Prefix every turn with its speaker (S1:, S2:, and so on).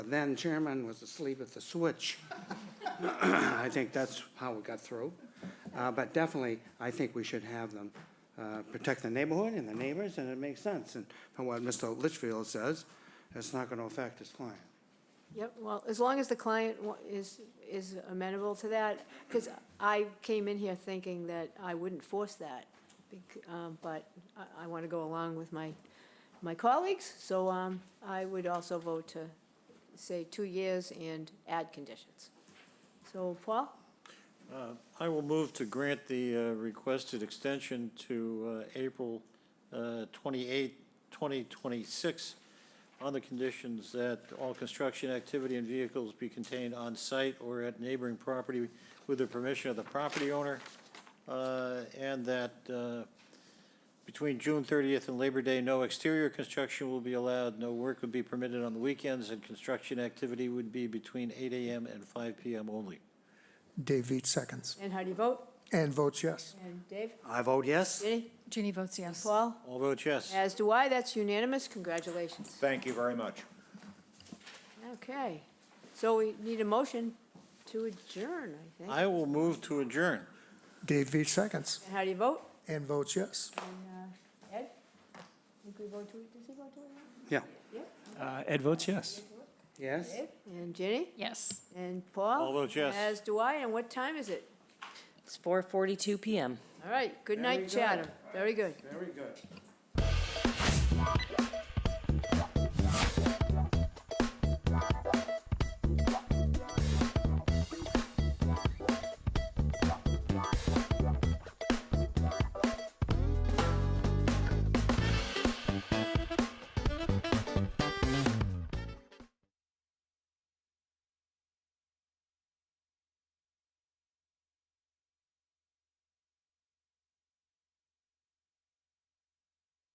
S1: then chairman was asleep at the switch. I think that's how we got through. Uh, But definitely, I think we should have them uh, protect the neighborhood and the neighbors, and it makes sense. And from what Mr. Litchfield says, it's not going to affect his client.
S2: Yep, well, as long as the client wa- is, is amenable to that, because I came in here thinking that I wouldn't force that, bec- um, but I, I want to go along with my, my colleagues, so um, I would also vote to say two years and add conditions. So, Paul?
S3: Uh, I will move to grant the uh, requested extension to uh, April uh, 28, 2026, on the conditions that all construction activity and vehicles be contained on-site or at neighboring property with the permission of the property owner, uh, and that uh, between June 30th and Labor Day, no exterior construction will be allowed, no work would be permitted on the weekends, and construction activity would be between 8 AM and 5 PM only.
S4: Dave Veach seconds
S2: And how do you vote?
S4: and votes yes.
S2: And Dave?
S1: I vote yes.
S2: Ginny?
S5: Ginny votes yes.
S2: Paul?
S3: All vote yes.
S2: As do I, that's unanimous, congratulations.
S6: Thank you very much.
S2: Okay, so we need a motion to adjourn, I think.
S3: I will move to adjourn.
S4: Dave Veach seconds
S2: And how do you vote?
S4: and votes yes.
S2: And, uh, Ed? Think we vote to, does he vote to it?
S1: Yeah.
S7: Uh, Ed votes yes.
S1: Yes?
S2: Ed? And Ginny?
S5: Yes.
S2: And Paul?
S3: All vote yes.
S2: As do I, and what time is it?
S8: It's 4:42 PM.
S2: All right, good night, Chatham. Very good.
S1: Very good.